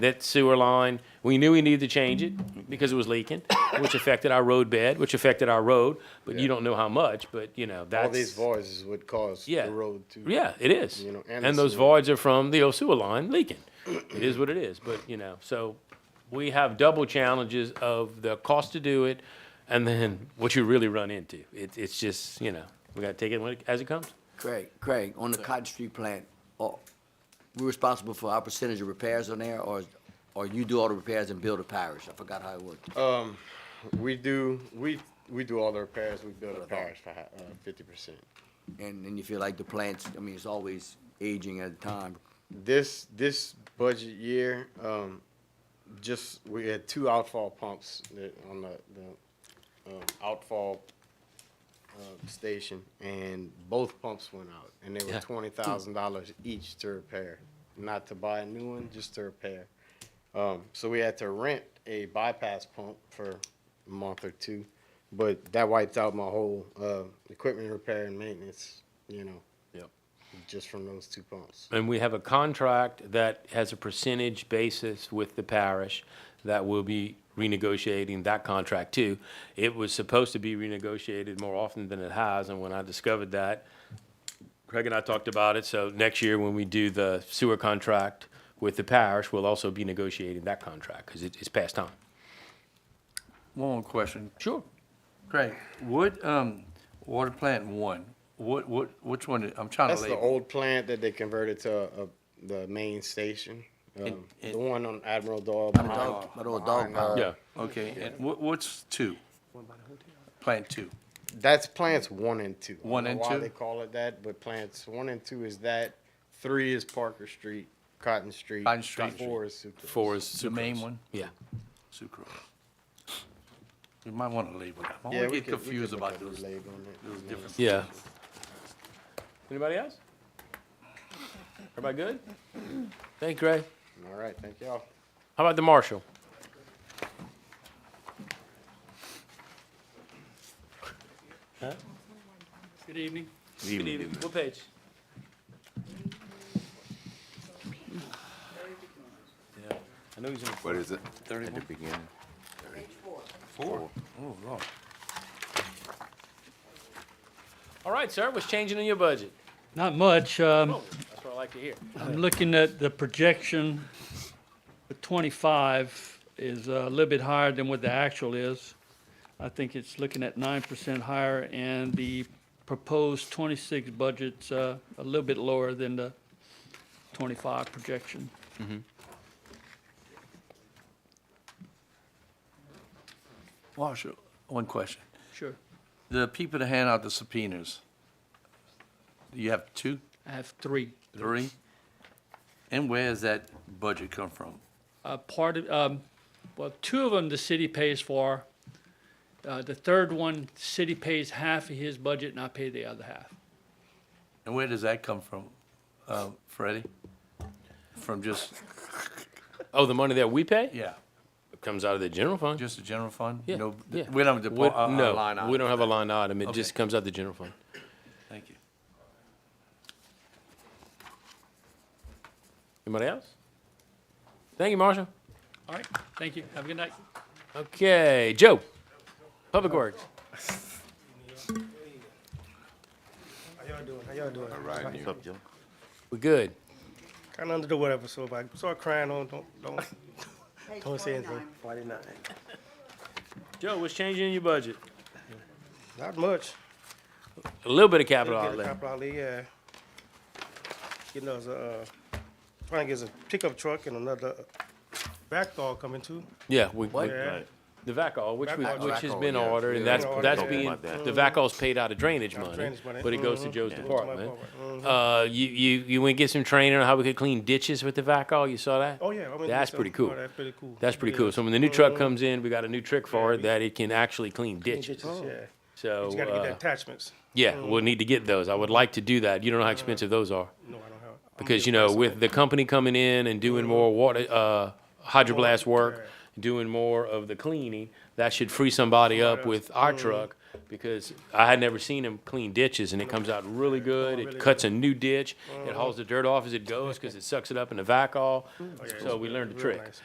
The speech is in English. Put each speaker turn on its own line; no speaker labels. that sewer line, we knew we needed to change it because it was leaking, which affected our road bed, which affected our road, but you don't know how much, but you know, that's.
All these voids is what caused
Yeah.
the road to.
Yeah, it is.
You know, and
and
the
those
sewer.
voids are from the old sewer line leaking. It is what it is, but you know, so we have double challenges of the cost to do it and then what you really run into. It, it's just, you know, we gotta take it when it- as it comes.
Craig, Craig, on the Cotton Street plant, are we responsible for our percentage of repairs on there, or, or you do all the repairs and build a parish? I forgot how it worked.
We do, we, we do all the repairs, we build a parish for uh, fifty percent.
And, and you feel like the plants, I mean, it's always aging at a time.
This, this budget year, um, just, we had two outfall pumps that, on the, the, um, outfall, uh, station, and both pumps went out, and they
Yeah.
were twenty thousand dollars each to repair, not to buy a new one, just to repair. Um, so we had to rent a bypass pump for a month or two, but that wiped out my whole, uh, equipment repair and maintenance, you know? Yep. Just from those two pumps.
And we have a contract that has a percentage basis with the parish that will be renegotiating that contract too. It was supposed to be renegotiated more often than it has, and when I discovered that, Craig and I talked about it, so next year when we do the sewer contract with the parish, we'll also be negotiating that contract, because it's past time.
One more question.
Sure.
Craig, what, um, water plant one, what, what, which one, did- I'm trying to
That's the
label.
old plant that they converted to a, a- the main station. Um,
it-
the one on Admiral Doyle.
By the
behind-
dog, by the old
behind,
dog
uh,
pound.
Yeah,
Okay, and what, what's two? Plant two.
That's plants one and two. I don't
One
know
and
why
two?
They call it that, but plants one and two is that. Three is Parker Street, Cotton Street.
Cotton Street.
Four is Sucrose.
four is
The main
sucrose.
one?
Yeah.
Sucrose. You might want to label that. I
Yeah, we
always get
could- we could
confused
look
about
at the
those,
label on it.
those different.
Yeah. Anybody else? Everybody good? Thank you, Ray.
All right, thank y'all.
How about the marshal?
Good evening.
Good evening. What page? Yeah, I know he's in.
What is it? At the beginning?
Oh, Lord.
All right, sir, what's changing in your budget?
Not much. Um,
Oh, That's what I like to hear.
I'm looking at the projection. The 25 is a little bit higher than what the actual is. I think it's looking at 9% higher, and the proposed 26 budget's uh, a little bit lower than the 25 projection.
Marshall, one question.
Sure.
The people that hand out the subpoenas, you have two,
I have three.
three? And where does that budget come from?
uh, part of, um, well, two of them the city pays for. Uh, the third one, the city pays half of his budget and I pay the other half.
And where does that come from, uh, Freddie? From just,
Oh, the money that we pay
yeah,
comes out of the general fund?
just the general fund?
Yeah,
No,
yeah.
We don't have a
We-
uh,
depo- a- a line
No, we
item.
don't have a line item. It
Okay.
just comes out of the general fund.
Thank you.
Anybody else? Thank you, Marshall.
All right, thank you. Have a good night.
Okay, Joe, Public Works.
How y'all doing?
Right, you-
We good.
Kind of under the weather, so if I start crying, don't don't don't, don't say anything. Forty-nine.
Joe, what's changing in your budget?
Not much.
A little bit of capital
Get a
outlay.
couple out there, yeah. Getting us a uh, trying to get us a pickup truck and another backdoor coming too.
Yeah, we, we-
Yeah.
the VACOL, which we,
Vac-
which has
Vac-
been
yeah.
ordered, and
Yeah.
that's,
Yeah.
that's
Talking
being,
about that.
the VACOL's paid out of drainage money,
drainage money.
but it goes to
Mhm.
Joe's
Yeah.
department.
Mhm.
Uh, you, you, you went get some training on how we could clean ditches with the VACOL, you saw that?
Oh yeah, I mean,
That's
so-
pretty cool.
oh, that's pretty cool.
That's pretty
Yeah. Uh-huh.
cool, so when the new truck comes in, we got a new trick for it, that it can actually clean ditches,
Ditches, Yeah,
so,
you gotta get the
uh,
attachments.
yeah, we'll need to get those, I would like to do that, you don't know how expensive those are.
No, I don't have. I'm
Because, you
getting
know, with the company coming in and doing more water, uh, hydroblast work, doing more of the cleaning, that should free somebody up with our truck because I had never seen them clean ditches, and it comes out really good. It cuts a new ditch, it hauls the dirt off as it goes, because it sucks it up in the vac all. So we learned a
Oh, Mm-hmm. Real
trick.
nice.